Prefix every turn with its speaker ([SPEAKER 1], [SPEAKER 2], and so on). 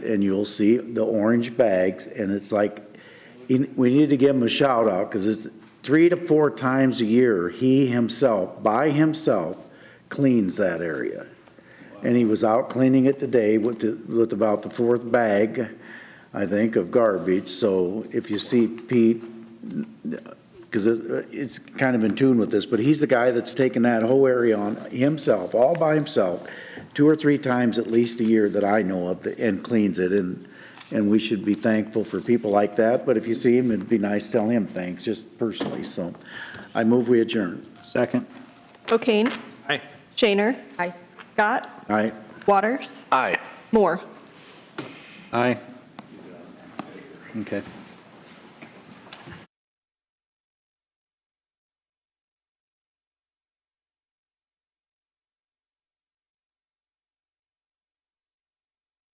[SPEAKER 1] and you'll see the orange bags, and it's like, in- we need to give him a shout out, because it's three to four times a year, he himself, by himself, cleans that area. And he was out cleaning it today with, the- with about the fourth bag, I think, of garbage, so if you see Pete, because it's kind of in tune with this, but he's the guy that's taken that whole area on himself, all by himself, two or three times at least a year that I know of, and cleans it, and, and we should be thankful for people like that, but if you see him, it'd be nice to tell him thanks, just personally, so I move we adjourn. Second.
[SPEAKER 2] O'Kane. Aye. Shaner. Aye. Scott.
[SPEAKER 1] Aye.
[SPEAKER 2] Waters.
[SPEAKER 3] Aye.
[SPEAKER 2] Moore.
[SPEAKER 1] Aye. Okay.